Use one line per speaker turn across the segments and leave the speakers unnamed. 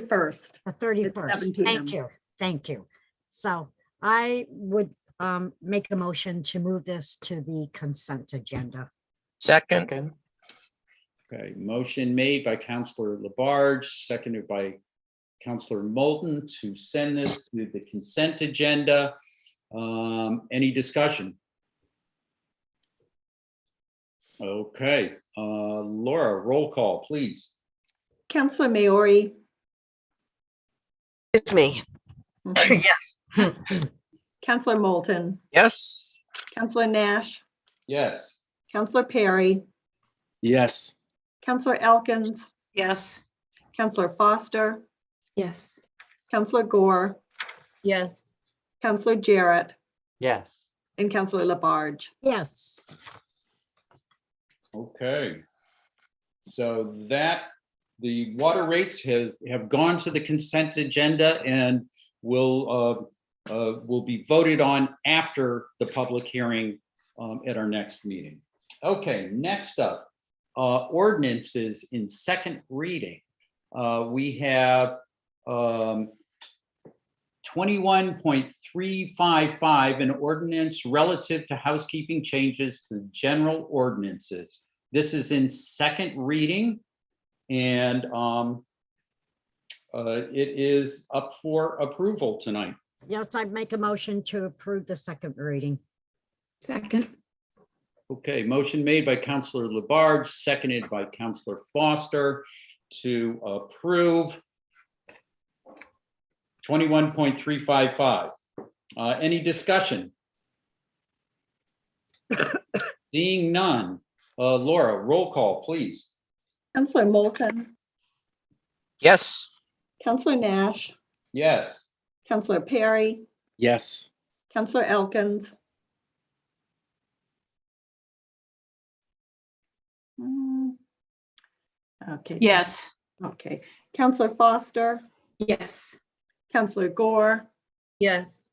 31st.
The
7
thirty-first,
PM.
thank you, thank you. So I would um make a motion to move this to the consent agenda.
Second,
Second,
Okay, motion made by Counselor Labarge, seconded by Counselor Moulton to send this to the consent agenda. Um, any discussion? Okay, uh, Laura, roll call, please.
Counselor Maori.
Excuse me. Yes.
Counselor Mm-hmm. Moulton.
yes,
Counselor Nash.
Yes,
Counselor Perry.
Yes,
Counselor Elkins.
Yes.
Counselor Foster.
Yes.
Counselor Gore. Yes. Counselor Jarrett
yes,
and Counselor Labarge.
Yes,
okay. So that, the water rates has, have gone to the consent agenda and will, uh, uh, will be voted on after the public hearing um, at our next meeting. Okay, next up, uh, ordinances in second reading. Uh, we have, um, twenty-one point three five five, an ordinance relative to housekeeping changes to general ordinances. This is in second reading and, um, uh, it is up for approval tonight.
yes, I'd make a motion to approve the second reading.
Second.
Okay, motion made by Counselor Labarge, seconded by Counselor Foster to approve twenty-one point three five five. Uh, any discussion? Seeing none, uh, Laura, roll call, please.
Counselor Moulton.
yes,
Counselor Nash.
Yes,
Counselor Perry.
yes,
Counselor Elkins. Hmm. Okay.
Yes.
Okay. Counselor Foster.
Yes.
Counselor Gore.
Yes.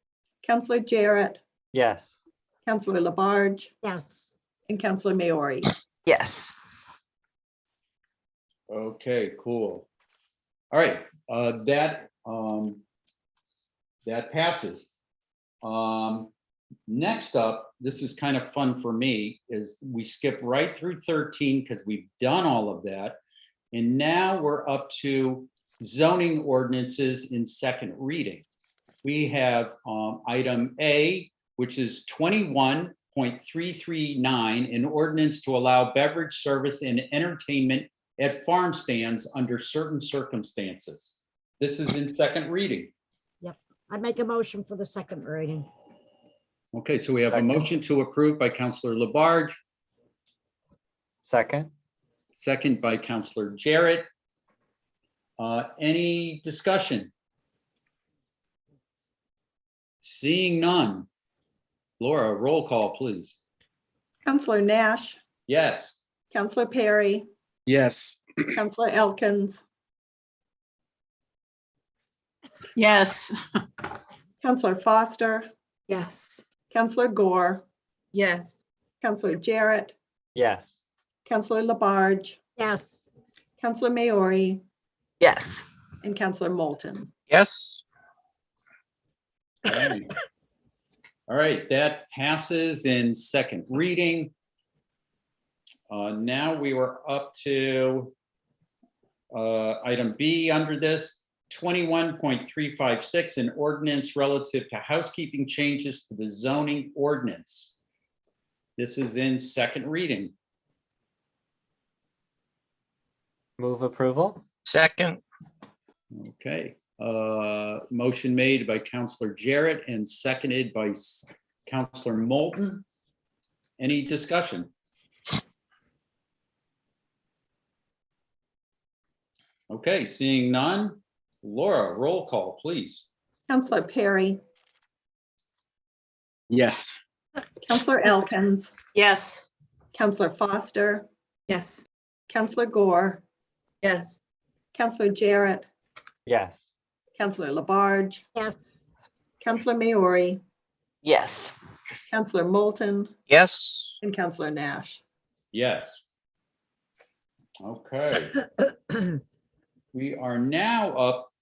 Counselor Jarrett.
yes,
Counselor Labarge.
Yes,
And Counselor Maori.
Yes.
okay, cool. All right, uh, that, um, that passes. Um, next up, this is kind of fun for me, is we skip right through thirteen because we've done all of that. And now we're up to zoning ordinances in second reading. We have, um, item A, which is twenty-one point three three nine, an ordinance to allow beverage service and entertainment at farm stands under certain circumstances. This is in second reading.
I'd make a motion for the second reading.
Okay, so we have a
Second.
motion to approve by Counselor Labarge,
second,
second by Counselor Jarrett. Uh, Any discussion? Seeing none. Laura, roll call, please.
Counselor Nash.
Yes,
Counselor Perry.
yes,
Counselor Elkins.
Yes.
Counselor Foster.
Yes.
Counselor Gore.
Yes.
Counselor Jarrett.
yes,
Counselor Labarge.
Yes,
Counselor Maori.
Yes.
And Counselor Moulton.
yes,
Alright. All right, that passes in second reading. Uh, Now we were up to uh, item B under this, 21.356, an ordinance relative to housekeeping changes to the zoning ordinance. This is in second reading.
move approval,
second,
Okay, uh, motion made by Counselor Jarrett and seconded by S- Counselor Moulton. Any discussion? Okay, seeing none. Laura, roll call, please.
Counselor Perry.
yes.
Counselor Elkins.
Yes.
Counselor Foster.
Yes.
Counselor Gore.
Yes.
Counselor Jarrett.
yes,
Counselor Labarge.
yes,
Counselor Maori.
Yes.
Counselor Moulton.
yes,
And Counselor Nash.
Yes. Okay, We are now up